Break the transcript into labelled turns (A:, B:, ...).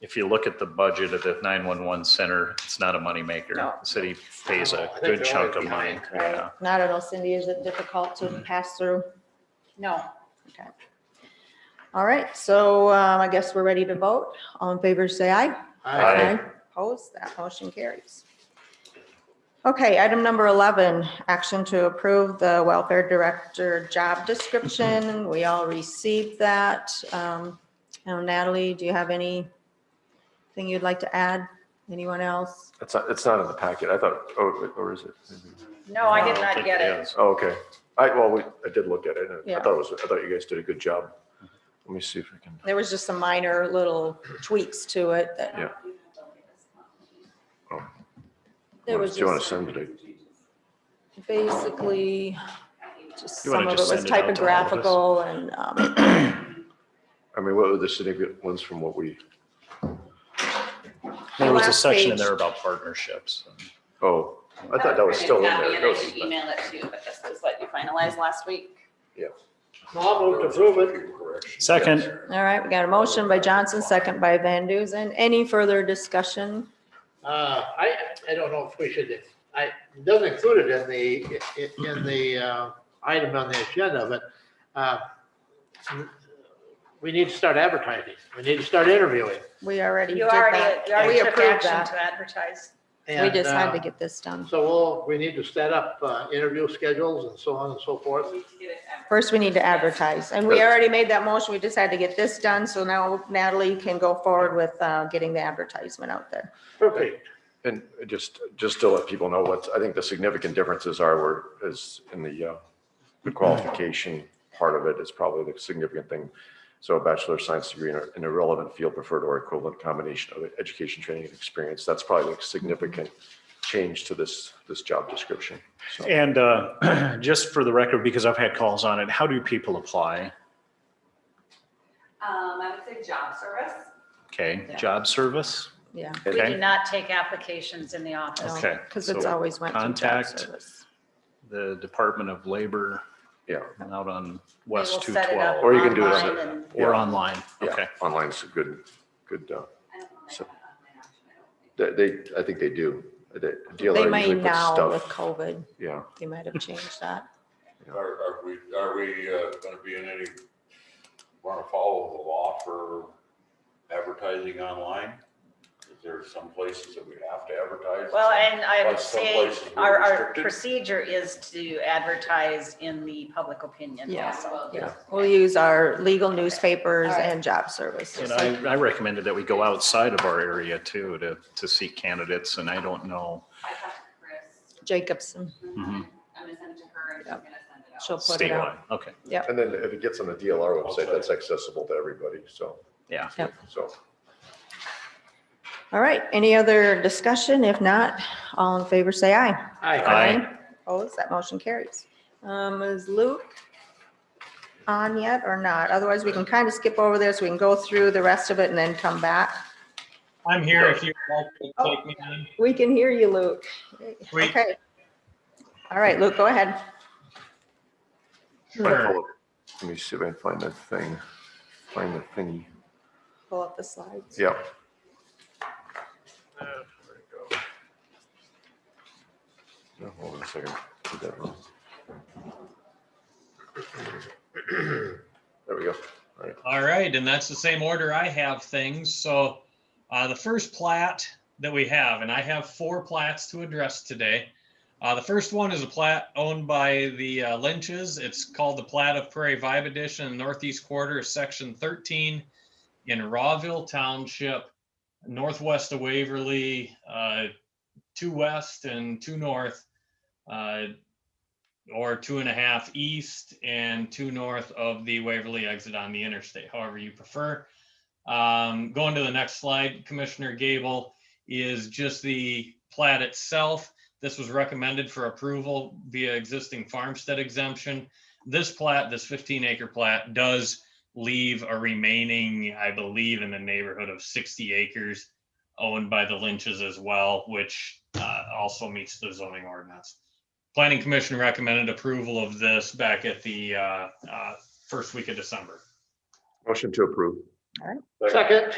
A: if you look at the budget of the nine-one-one center, it's not a moneymaker.
B: No.
A: The city pays
C: No, I
A: a
C: think
A: good
C: they're
A: chunk of
C: always
A: money.
C: behind.
A: Yeah. Mm-hmm.
D: Right, and I don't know, Cindy, is it difficult to pass through?
B: No.
D: All right, so um, I guess we're ready to vote. All in favor, say aye.
A: Aye.
D: Opposed, that motion carries. Okay, item number 11, action to approve the welfare director job
A: Mm-hmm.
D: description. We all received that. Um, Now Natalie, do you have anything you'd like to add? Anyone else?
E: It's not, it's not in the packet. I thought, oh, or is it?
B: No, I did
A: don't
B: not
A: think
B: get it.
A: is.
E: Oh, okay. I, well, we, I did look at it. and
D: Yeah.
E: I thought it was, I thought you guys did a good job. Let me see if I can,
D: There was just some minor little tweaks to it that.
E: Yeah. Oh.
D: There was
E: do you want
D: just
E: to send it? to-
D: basically, just
A: You wanna
D: some of it
A: just
D: was
A: send it out to all of us?
D: typographical and um,
E: I mean, what were the significant ones from what we,
A: There was a
D: Last
A: section in
D: page.
A: there about partnerships.
E: oh, I thought that was still in
B: Copy
E: there.
B: it,
E: That
B: I
E: was-
B: should Email it to you, but this is what you finalized last week.
C: I'll move to approve it.
A: Second,
D: All right, we got a motion by Johnson, second by Van Duzen. Any further discussion?
C: Uh, I, I don't know if we should, I, it doesn't include it in the, i- in the, uh, item on the agenda, but, uh, we need to start advertising. We need to start interviewing.
D: We already did
B: You already,
D: that.
B: you already
D: We
B: took
D: approved
B: action
D: that.
B: to advertise.
D: We
C: And,
D: just had to
C: uh,
D: get this done.
C: So we'll, we need to set up, uh, interview schedules and so on and so forth.
D: First, we need to advertise, and we already made that motion. We just had to get this done, so now Natalie can go forward with uh, getting the advertisement out there.
C: Perfect.
E: And just, just to let people know what, I think the significant differences are, were, is in the, uh, the qualification part of it is probably the significant thing. So a bachelor of science degree in a- in a relevant field preferred or equivalent combination of education, training, and experience. That's probably a significant change to this, this job description. So
A: and uh, just for the record, because I've had calls on it, how do people apply?
F: Um, I would say job service.
A: Okay,
D: Yeah.
A: job service?
D: Yeah.
B: We
A: Okay.
B: do not take applications in the office.
A: Okay,
D: Because it's
A: so
D: always went to job
A: contact-
D: service.
A: The Department of Labor
E: Yeah,
A: and out on
B: We will
A: West
B: set it up
A: 212
E: Or you can do it on
B: online
E: the-
B: and-
A: or
E: Yeah.
A: online. Okay.
E: yeah, online's a good, good, uh,
F: I don't know if
E: So-
F: they have that online option, I don't think.
E: they, they- I think they do. They- DLR
D: They may
E: usually puts
D: now
E: stuff-
D: with COVID,
E: Yeah,
D: they might have changed that.
G: Are, are we, are we uh, gonna be in any, wanna follow the law for advertising online? Is there some places that we have to advertise?
B: Well, and I would
G: But some
B: say
G: places were
B: our, our
G: restricted.
B: procedure is to advertise in the public opinion
D: Yeah.
B: also.
F: Well,
E: Yeah.
D: We'll use our legal newspapers
B: All right.
D: and job services.
A: And I, I recommended that we go outside of our area too, to, to seek candidates and I don't know.
F: I talked to Chris,
D: Jacobson,
E: Mm-hmm.
F: and
A: Mhm.
F: I'm gonna send it to her and she's
D: Yep.
F: gonna send it out.
D: she'll put it out.
A: Statewide, okay.
E: and then if it gets on the DLR website, that's accessible to everybody, so.
A: Yeah.
D: Yep.
E: So.
D: All right, any other discussion? If not, all in favor, say aye.
A: Aye.
C: Aye.
D: Opposed, that motion carries. Um, is Luke on yet or not? Otherwise, we can kind of skip over this. We can go through the rest of it and then come back.
H: I'm here if you'd like to take me in.
D: Oh, We can hear you, Luke.
H: We-
D: Okay. All right, Luke, go ahead.
H: Sure.
E: Let me see if I can find that thing, find the thingy.
D: Pull up the slides.
E: Yeah. No, Hold on a second. Did that wrong. There we go. All right.
H: All right, and that's the same order I have things. So uh, the first plat that we have, and I have four plats to address today. Uh, the first one is a plat owned by the uh, Lynches. It's called the Plat of Prairie Vibe Edition, Northeast Quarter, Section 13 in Rawville Township, northwest of Waverly, uh, two west and two north. uh, or two and a half east and two north of the Waverly exit on the interstate, however you prefer. Um, going to the next slide, Commissioner Gable is just the plat itself. This was recommended for approval via existing farmstead exemption. This plat, this fifteen acre plat does leave a remaining, I believe, in the neighborhood of sixty acres owned by the Lynches as well, which, uh, also meets the zoning ordinance. Planning Commission recommended approval of this back at the uh, uh, first week of December.
E: Motion to approve.
C: Second.